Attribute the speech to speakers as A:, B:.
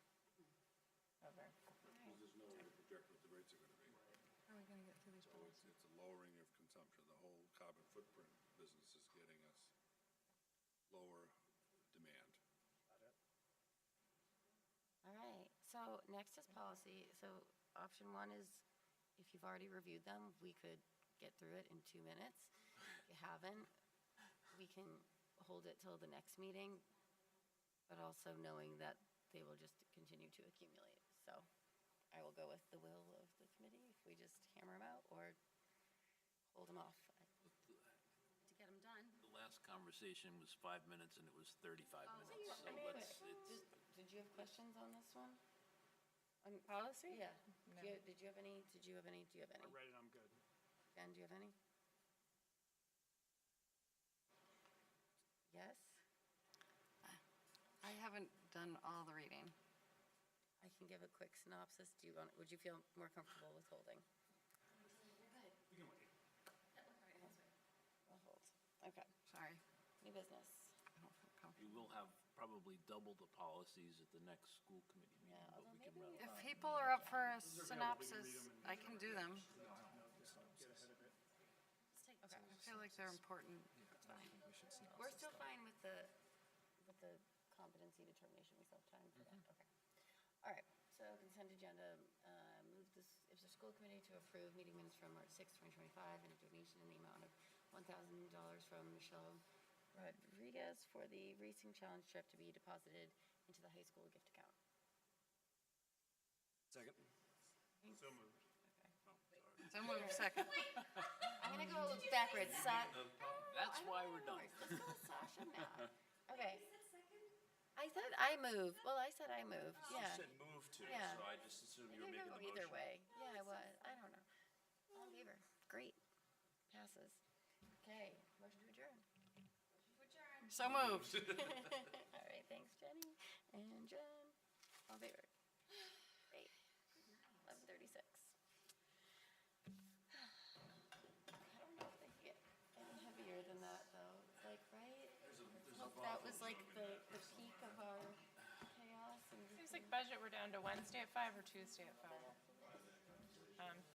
A: project what the rates are gonna be.
B: How are we gonna get through these
A: So it's,
B: policies?
A: it's a lowering of consumption. The whole carbon footprint business is getting us lower demand.
C: All right, so next is policy. So option one is, if you've already reviewed them, we could get through it in two minutes. If you haven't, we can hold it till the next meeting, but also knowing that they will just continue to accumulate. So I will go with the will of the committee, if we just hammer them out or hold them off to get them done.
D: The last conversation was five minutes and it was 35 minutes, so
C: Oh, I mean,
D: let's,
C: wait,
D: it's,
C: did- Did you have questions on this one? On
B: Policy?
C: Yeah.
B: No.
C: Do you, did you have any, did you have any, do you have
E: I
C: any?
E: read it, I'm good.
C: Ben, do you have any? Yes?
F: I haven't done all the reading.
C: I can give a quick synopsis. Do you want, would you feel more comfortable withholding?
E: You can wait.
C: I'll hold. Okay.
F: Sorry.
C: New business.
F: I don't feel
D: we
F: comfortable.
D: will have probably double the policies at the next school committee meeting,
C: Yeah, although
D: but we
C: maybe
D: can rattle.
C: we-
F: If people are up for a
E: are available, we can read
F: synopsis,
E: them and-
F: I can do them.
E: Get ahead of it.
C: Okay.
F: I feel like they're important.
C: We're still fine with the, with the competency determination, we still have time for that, okay. All right, so consent agenda, uh, move this, if the school committee to approve meeting minutes from March sixth, twenty twenty-five, and a donation in the amount of one thousand dollars from Michelle Rodriguez for the racing challenge trip to be deposited into the high school gift account.
G: Second.
E: So moved.
F: Someone second.
C: I'm gonna go backwards, Sa-
D: That's
C: Oh, I don't
D: why
C: know
D: we're done.
C: yours. Let's go with Sasha now. Okay. I said I move, well, I said I move, yeah.
G: You said move to, so
C: Yeah.
G: I just assumed you were
C: I
G: making
C: could
G: the
C: go
G: motion.
C: Either way, yeah, I was, I don't know. All in favor, great, passes. Okay, motion to adjourn.
F: So moved.
C: All right, thanks Jenny and Jen, all in favor. Great, eleven thirty-six. I don't know if they can get any heavier than that though, like, right? Hope that was like the, the peak of our chaos and.
B: Seems like budget, we're down to Wednesday at five Um, or Tuesday at five.